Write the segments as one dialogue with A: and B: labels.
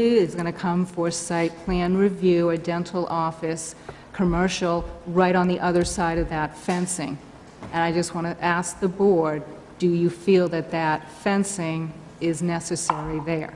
A: is going to come for site plan review, a dental office, commercial, right on the other side of that fencing. And I just want to ask the board, do you feel that that fencing is necessary there?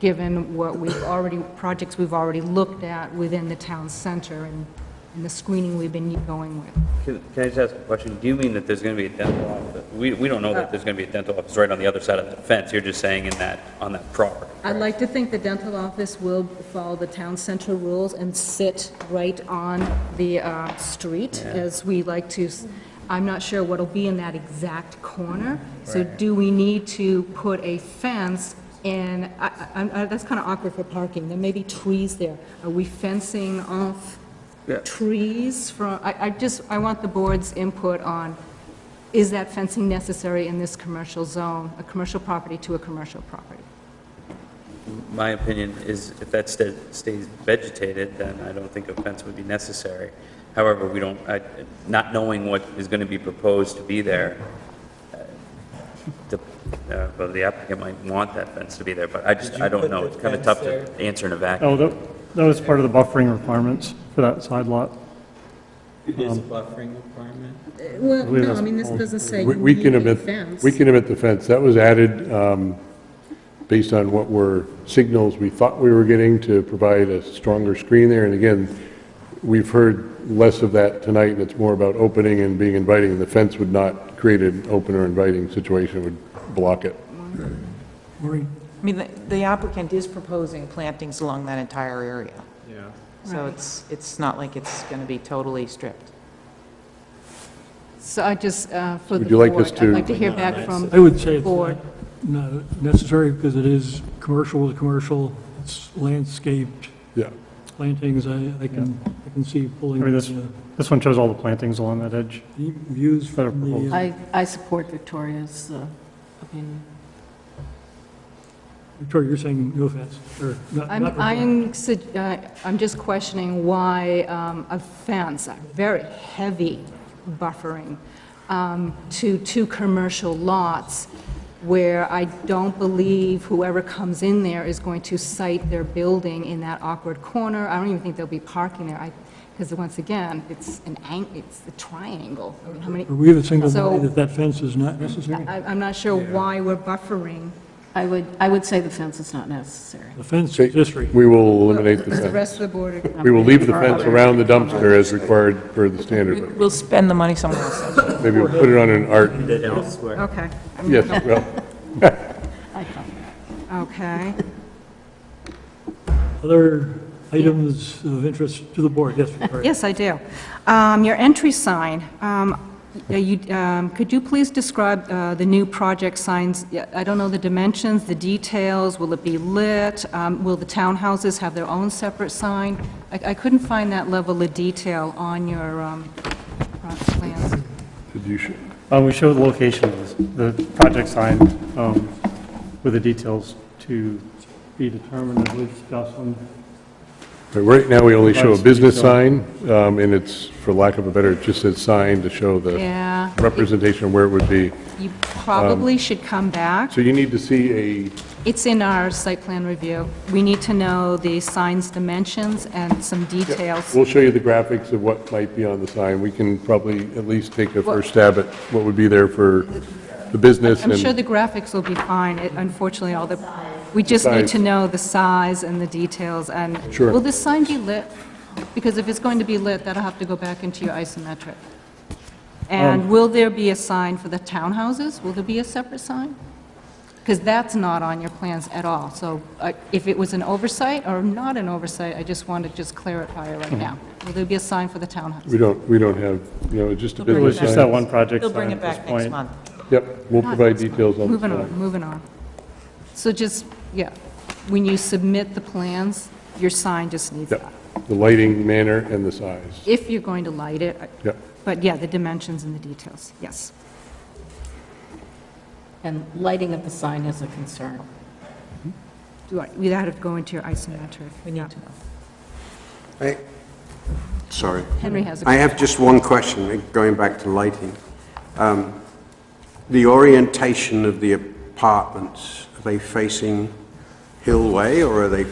A: Given what we've already, projects we've already looked at within the town center and and the screening we've been going with.
B: Can can I just ask a question? Do you mean that there's going to be a dental office? We, we don't know that there's going to be a dental office right on the other side of that fence. You're just saying in that, on that property.
A: I'd like to think the dental office will follow the town center rules and sit right on the uh, street, as we like to. s- I'm not sure what'll be in that exact corner. So do we need to put a fence in, I- I- I- that's kind of awkward for parking, there may be trees there. Are we fencing off
B: Yeah.
A: trees from, I I just, I want the board's input on, is that fencing necessary in this commercial zone, a commercial property to a commercial property?
B: My opinion is if that sta- stays vegetated, then I don't think a fence would be necessary. However, we don't, I- not knowing what is going to be proposed to be there, uh, the uh, well, the applicant might want that fence to be there, but I just,
C: Did you
B: I don't
C: put
B: know.
C: the
B: It's kind of
C: fence
B: tough
C: there?
B: to answer in a vacuum.
D: Oh, that, that was part of the buffering requirements for that side lot.
C: It is a buffering requirement.
A: Well,
D: believe
A: no, I
D: that's
A: mean, this doesn't say
E: We
A: you
E: we
A: need
E: can
A: a
E: omit,
A: fence.
E: we can omit the fence. That was added um, based on what were signals we thought we were getting to provide a stronger screen there. And again, we've heard less of that tonight, and it's more about opening and being inviting. The fence would not create an open or inviting situation, it would block it.
F: I mean, the- the applicant is proposing plantings along that entire area,
C: Yeah.
F: so it's, it's not like it's going to be totally stripped.
A: So I just, uh, for the
E: Would you like
A: board,
E: us
A: I'd
E: to-
A: like to hear back from,
G: I would say it's
A: Board.
G: not not necessary because it is commercial with commercial, it's landscaped
E: Yeah.
G: plantings, I, I can, I can see pulling
D: I mean, this,
G: the uh,
D: this one shows all the plantings along that edge.
G: the views
D: Better
G: from the,
D: proposal.
G: uh,
H: I, I support Victoria's uh, opinion.
G: Victoria, you're saying no offense, or not.
A: I'm,
G: not required.
A: I'm, sug- uh, I'm just questioning why um, a fence, a very heavy buffering, um, to two commercial lots where I don't believe whoever comes in there is going to site their building in that awkward corner. I don't even think they'll be parking there, because once again, it's an, ang- it's a triangle. I mean, How many,
G: Are we of the single
A: So-
G: mind that that fence is not necessary?
A: I- I'm not sure why we're buffering.
H: I would, I would say the fence is not necessary.
G: The fence is history.
E: We will eliminate the
A: The
E: fence.
A: rest of the board are-
E: We will leave the fence around the dumpster as required for the standard.
F: We'll spend the money somewhere else.
E: Maybe we'll put it on an art,
A: okay,
E: yes, well,
A: okay.
G: Other items of interest to the board, yes, Victoria?
A: Yes, I do. Um, Your entry sign, um, y- you- um, could you please describe uh, the new project signs? Yeah, I don't know the dimensions, the details, will it be lit? Um, Will the townhouses have their own separate sign? I I couldn't find that level of detail on your um, front plans.
E: did you sh-
D: Uh, we show the location of the the project sign, um, with the details to be determined, I believe, Jocelyn.
E: But Right now, we only show a business sign, um, and it's, for lack of a better, it just says sign to show the
A: Yeah,
E: representation of where it would be.
A: you probably should come back.
E: So you need Um, to see a,
A: It's in our site plan review. We need to know the sign's dimensions and some details.
E: we'll show you the graphics of what might be on the sign. We can probably at least take a first stab at what would be there for the business
A: I'm sure
E: and
A: the graphics will be fine, It- unfortunately, all the, we just need
E: Size.
A: to know the size and the details, and...
E: Sure.
A: Will this sign be lit? Because if it's going to be lit, that'll have to go back into your isometric.
E: Oh.
A: And will there be a sign for the townhouses? Will there be a separate sign? Because that's not on your plans at all, so uh, if it was an oversight or not an oversight, I just want to just clarify it right
E: Mm-hmm.
A: now. Will there be a sign for the townhouses?
E: we don't, we don't have, you know, just a
D: It was
E: business
D: just that
E: sign.
D: one project
F: They'll bring
D: sign
F: it
D: at this
F: back next
D: point.
F: month.
E: Yep, we'll provide details on the
A: Moving
E: sign.
A: on, moving on. So just, yeah, when you submit the plans, your sign just needs that,
E: Yep, the lighting manner and the size.
A: if you're going to light it. I-
E: Yep.
A: But yeah, the dimensions and the details, yes.
H: And lighting of the sign is a concern.
A: Do I- We'd have to go into your isometric.
F: We need to know.
I: I- Sorry.
A: Henry has a...
I: I have just one question, going back to lighting. Um, The orientation of the apartments, are they facing Hillway or are they